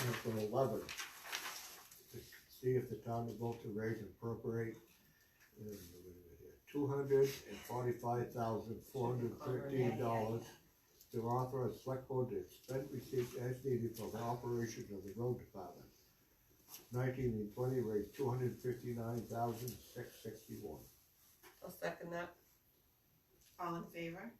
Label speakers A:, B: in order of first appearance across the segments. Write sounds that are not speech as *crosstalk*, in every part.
A: Article eleven. to See if the town will vote to raise and appropriate two hundred and forty-five thousand, four hundred and thirteen dollars to authorize select board to expend receipts as needed for the operation of the road department. Nineteen and twenty raised two hundred and fifty-nine thousand, six sixty-one.
B: I'll second that.
C: All in favor?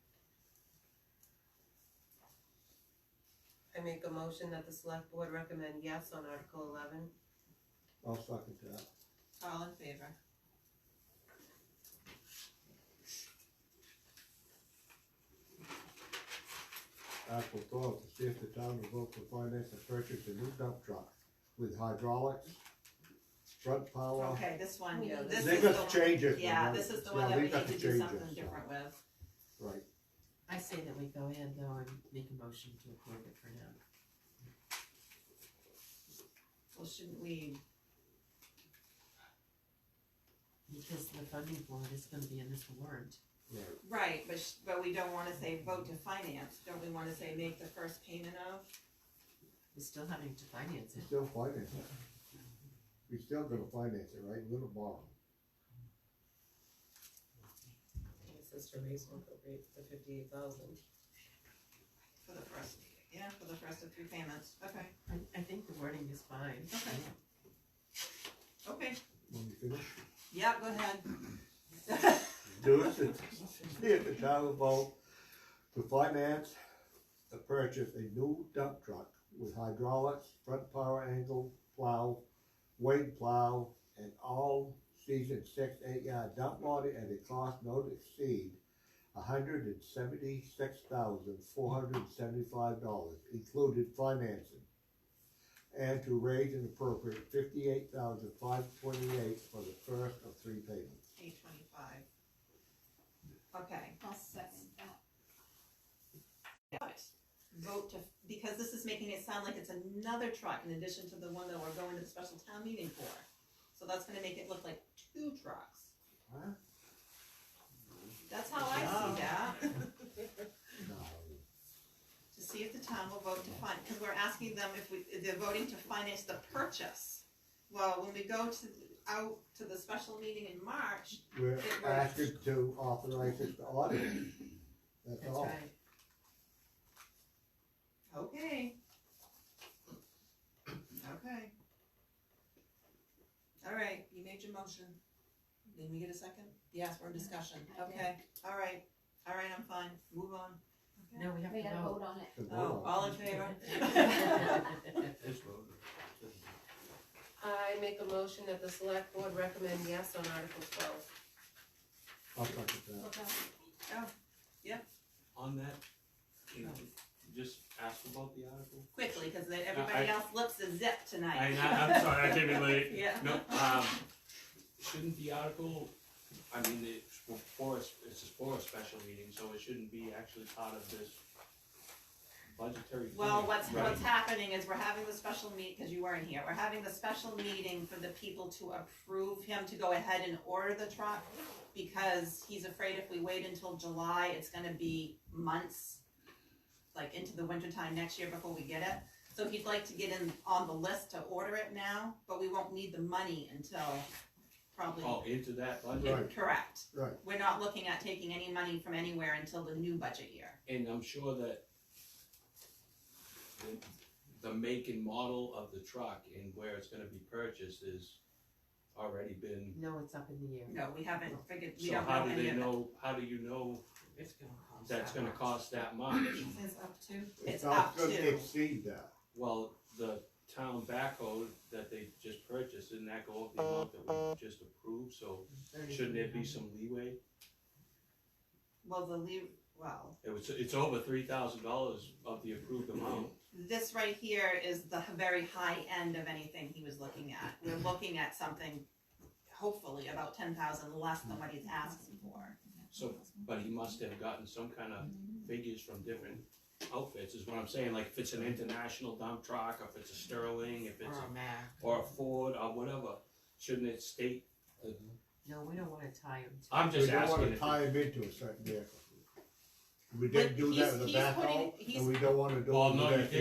B: I make a motion that the select board recommend yes on Article eleven.
A: I'll second that.
C: All in favor?
A: Article twelve, to see if the town will vote to finance and purchase a new dump truck with hydraulics, front power.
C: Okay, this one,
B: Yeah,
C: this
A: They
C: is the
A: got to
C: one,
A: change it.
C: yeah,
A: man.
C: this is the
A: Yeah,
C: one that
A: they
C: we
A: got
C: need to
A: to
C: do
A: change
C: something
A: it.
C: different with.
A: Right,
D: I say that we go ahead though and make a motion to approve it for now.
C: Well, shouldn't we,
D: Because the funding for it is gonna be in this warrant.
A: right,
C: right, but, sh- but we don't wanna say vote to finance, don't we wanna say make the first payment of?
D: We're still having to finance
A: we
D: it.
A: still finance it. We still gonna finance it, right, we're gonna borrow.
B: It says to raise and appropriate the fifty-eight thousand.
C: For the first, yeah, for the first of three payments, okay,
D: I, I think the wording is fine.
C: Okay. okay,
A: When we finish.
C: yeah, go ahead. *laughs*
A: Do it, see if the town will vote to finance the purchase a new dump truck with hydraulics, front power angle plow, wing plow, and all season six, eight yard dump body at a cost not to exceed hundred and seventy-six thousand, four hundred and seventy-five dollars, included financing. And to raise and appropriate fifty-eight thousand, five twenty-eight for the first of three payments.
C: Eight twenty-five. Okay.
E: I'll second that.
C: But vote to, because this is making it sound like it's another truck in addition to the one that we're going to the special town meeting for. So that's gonna make it look like two trucks.
A: Huh?
C: That's how I see that,
A: No.
C: to see if the town will vote to fund, cause we're asking them if we, if they're voting to finance the purchase. Well, when we go to, out to the special meeting in March,
A: We're
C: It works.
A: asking to authorize it to audit. That's
D: That's
A: all.
D: right.
C: okay. Okay. Alright, you made your motion. Did we get a second? Yes, we're in discussion,
E: I did.
C: okay, alright, alright, I'm fine, move on.
D: No, we have
E: We gotta
D: to vote.
E: vote on it.
A: To vote
C: Oh,
A: on.
C: all
D: *laughs*
C: in favor?
B: I make a motion that the select board recommend yes on Article twelve.
A: I'll second that.
E: Okay.
F: On that, can you just ask about the article?
C: Quickly, cause then everybody
F: I-
C: else lips a zip tonight.
F: I, I'm sorry, I came in late.
C: *laughs* Yeah.
F: No, um, shouldn't the article, I mean, it's for, a s- it's just for a special meeting, so it shouldn't be actually part of this budgetary.
C: Well,
F: thing,
C: what's,
F: right?
C: what's happening is we're having the special meet, cause you weren't here, we're having the special meeting for the people to approve him to go ahead and order the truck. Because he's afraid if we wait until July, it's gonna be months, like into the winter time next year before we get it. So he'd like to get in on the list to order it now, but we won't need the money until probably
F: Oh, into that budget,
A: Right.
C: Correct.
A: Right.
C: We're not looking at taking any money from anywhere until the new budget year.
F: and I'm sure that the- the make and model of the truck and where it's gonna be purchased is already been,
D: No, it's up in the air.
C: No, we haven't figured, we
F: so
C: don't
F: how
C: know
F: do
C: any
F: they
C: of it.
F: know, how do you know
D: It's gonna cost.
F: that's
D: that
F: gonna
D: much.
F: cost
D: *laughs*
F: that much?
C: It's up to.
A: It's
C: It's
A: not
C: up
A: gonna
C: to,
A: exceed that.
F: Well, the town backhoe that they just purchased, didn't that go up the amount that we just approved, so
D: Thirty
F: shouldn't there be
D: grand.
F: some leeway?
C: well, the lea, well,
F: It was, it's over three thousand dollars of the approved amount,
C: this right here is the very high end of anything he was looking at. We're looking at something, hopefully about ten thousand less than what he's asking for.
F: so, but he must have gotten some kind of figures from different outfits, is what I'm saying, like if it's an international dump truck, or if it's a Sterling, if it's,
D: Oh, man.
F: or a Ford, or whatever, shouldn't it state?
D: No, we don't wanna tie them to.
F: I'm
A: We
F: just
A: don't
F: asking,
A: wanna
F: if-
A: tie him into a certain vehicle. We didn't
C: But
A: do that
C: he's-
A: with the
C: he's putting-
A: backhoe,
C: he's-
A: and we don't wanna do
F: Well,
A: it
F: no,
A: with
F: you
A: that.